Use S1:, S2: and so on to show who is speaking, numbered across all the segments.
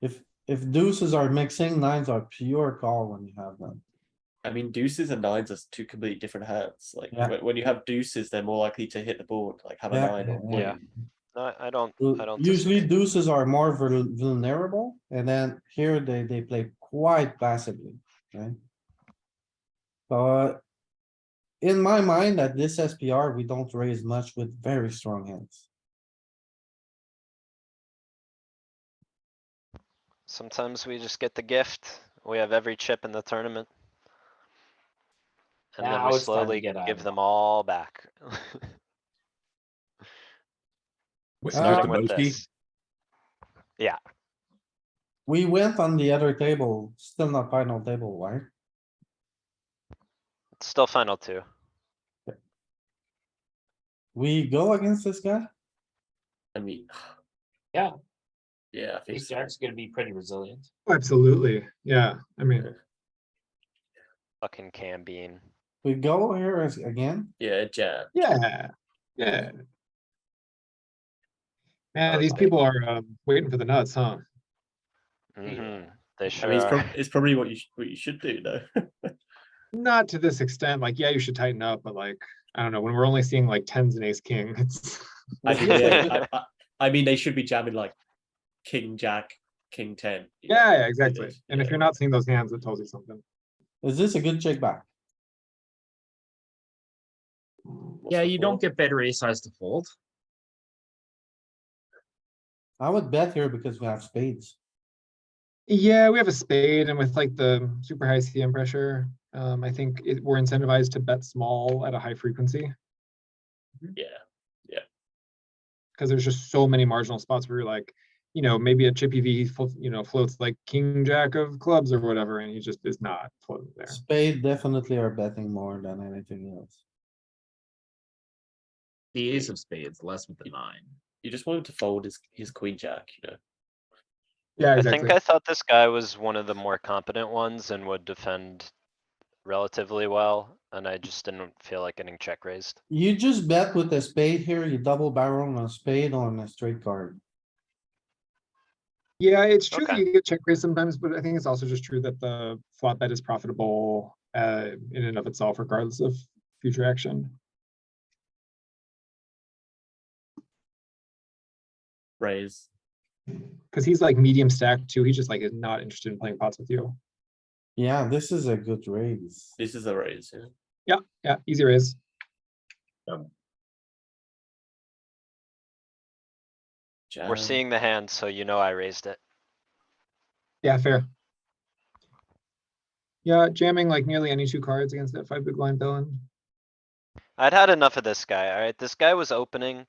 S1: If, if deuces are mixing, nines are pure call when you have them.
S2: I mean, deuces and nines are two completely different hands. Like
S1: Yeah.
S2: when, when you have deuces, they're more likely to hit the board, like have a
S1: Yeah.
S2: nine or
S1: Yeah.
S3: Yeah,
S4: No, I don't, I
S1: Well,
S4: don't.
S1: Usually
S4: disagree.
S1: deuces are more vul- vulnerable and then here they, they play quite passively, right? But in my mind, at this SPR, we don't raise much with very strong hands.
S4: Sometimes we just get the gift. We have every chip in the tournament. And then
S5: Now
S4: we
S5: it's time to
S4: slowly
S5: get out
S4: give
S5: of
S4: them all back.
S6: Wait, Mr.
S1: Uh,
S4: Starting with
S6: Bosky,
S4: this.
S1: We went on the other table, still not final table, right?
S4: It's Still final two.
S1: We go against this guy?
S2: I mean.
S5: Yeah.
S2: Yeah, I think
S5: Ace
S2: so.
S5: jack's gonna be pretty resilient.
S7: Oh, Absolutely, yeah, I mean,
S4: Fucking cam bean.
S1: We go here as- again?
S2: Yeah, jam.
S7: yeah, yeah. Man,
S4: was
S7: these
S4: like-
S7: people are um, waiting for the nuts, huh?
S4: hmm They
S2: I
S4: sure
S2: mean, it's,
S4: are.
S2: prob- it's probably what you sh- what you should do though.
S7: Not to this extent, like, yeah, you should tighten up, but like, I don't know, when we're only seeing like tens and ace king, it's.
S2: I mean, yeah, I, I, I mean, they should be jamming like king jack, king ten. you know,
S7: Yeah,
S2: you
S7: yeah,
S2: know,
S7: exactly. And if
S2: yeah.
S7: you're not seeing those hands, it tells you something.
S1: Is this a good check back?
S2: What's
S3: yeah,
S2: the
S3: you don't
S2: fold?
S3: get better ace size to fold.
S1: I would bet here because we have spades.
S7: Yeah, we have a spade and with like the super high CM pressure, um, I think it, we're incentivized to bet small at a high frequency.
S2: Yeah,
S7: Cause there's just so many marginal spots where you're like, you know, maybe a chippy V, flo- you know, floats like king jack of clubs or whatever, and he just is not floating there.
S1: Spade definitely are betting more than anything else.
S3: The ace of spades, less with the nine.
S2: you just want him to fold his his queen jack. You know,
S7: Yeah,
S4: I think
S7: exactly.
S4: I thought this guy was one of the more competent ones and would defend relatively well, and I just didn't feel like getting check raised.
S1: You just bet with a spade here, you double barrel on a spade on a straight card.
S7: Yeah, it's true that
S4: Okay.
S7: you get check raised sometimes, but I think it's also just true that the flop bet is profitable uh, in and of itself regardless of future action.
S2: raise.
S7: Cause he's like medium stack too. He just like is not interested in playing pots with you.
S1: Yeah, this is a good raise.
S2: This is a raise. Yeah.
S7: Yeah, yeah, easy raise.
S2: Jam.
S4: We're seeing the hand, so you know I raised it.
S7: Yeah, fair. Yeah, jamming like nearly any two cards against that five big blind villain.
S4: I'd had enough of this guy, alright? This guy was opening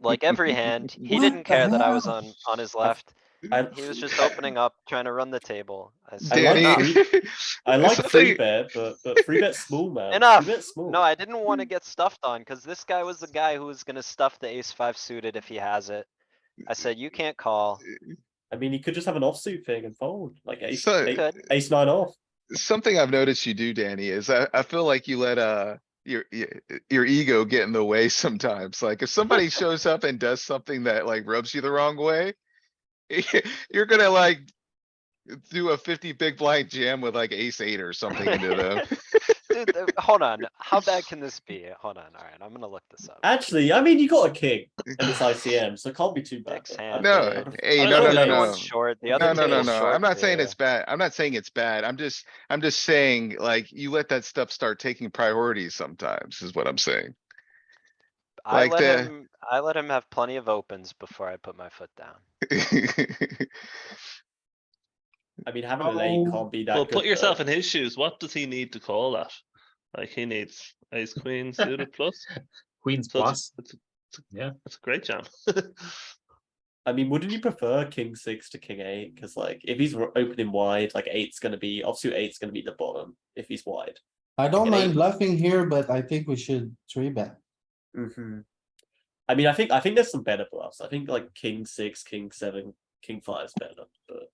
S4: like every hand. He
S1: What
S4: didn't
S1: the
S4: care that I was
S1: hell?
S4: on, on his left.
S2: I,
S4: He was just opening up, trying to run the table. I said,
S2: Danny.
S4: "Enough."
S2: I
S8: It's
S2: like
S8: the
S2: free
S8: thing-
S2: bet, but but free bet small man.
S4: Enough.
S2: Free bet small.
S4: No, I didn't wanna get stuffed on, cuz this guy was the guy who was gonna stuff the ace five suited if he has it. I said, you can't call.
S2: I mean, you could just have an offsuit thing and fold, like ace,
S8: So-
S2: ace,
S4: Good.
S2: ace nine off.
S8: Something I've noticed you do, Danny, is I, I feel like you let, uh, your, your, your ego get in the way sometimes. Like if somebody shows up and does something that like rubs you the wrong way, you're gonna like do a fifty big blind jam with like ace eight or something into them.
S4: Dude, uh, hold on, how bad can this be? Hold on, alright, I'm gonna look this up.
S2: Actually, I mean, you got a king and it's ICM, so it can't be too bad.
S4: Dick's
S2: I
S4: hand.
S2: don't know.
S8: No, hey,
S4: I
S8: no,
S4: know
S8: no,
S2: that
S8: no,
S4: one's
S8: no.
S4: Short, the
S8: No,
S4: other
S8: no, no,
S4: table's
S8: no.
S4: short.
S8: I'm not saying
S4: too.
S8: it's bad. I'm not saying it's bad. I'm just, I'm just saying like you let that stuff start taking priority sometimes is what I'm saying.
S4: I
S8: like
S4: let
S8: the-
S4: him, I let him have plenty of opens before I put my foot down.
S2: I mean, having an eight
S7: Oh.
S2: can't be that.
S9: Well,
S2: good,
S9: put yourself
S2: though.
S9: in his shoes. What does he need to call that? Like he needs ace queen suited plus.
S3: Queens
S9: So
S3: plus.
S9: it's, it's, it's-
S3: Yeah.
S9: it's a great jam.
S2: I mean, wouldn't you prefer king six to king eight? Because like, if he's ro- opening wide, like eight's gonna be offsuit eight's gonna be the bottom if he's wide.
S1: I don't
S2: An
S1: mind
S2: eight.
S1: bluffing here, but I think we should three bet.
S2: I mean, I think I think there's some better bluffs. I think like king six, king seven, king five's better, but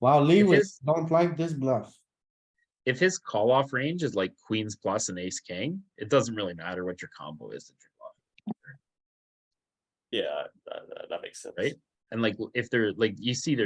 S1: Wow, Lewis,
S3: is-
S1: don't like this bluff.
S3: If his call off range is like queens plus and ace king, it doesn't really matter what your combo is that you're bluffing.
S2: yeah, that, that- that makes sense.
S3: Right? And like, if they're like, you see their